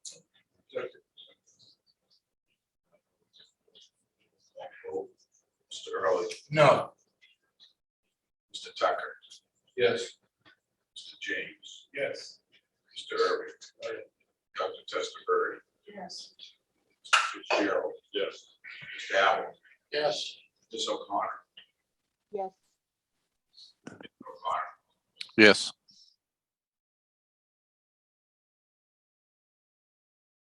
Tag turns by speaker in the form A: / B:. A: No.
B: Mr. Tucker,
A: Yes.
B: Mr. James,
A: Yes.
B: Mr. Irving, Dr. Testerberry,
A: Yes.
B: Mr. Fitzgerald. Yes. Mr. Allen,
A: Yes.
B: Ms. O'Connor,
C: yes,
B: O'Connor,
D: yes,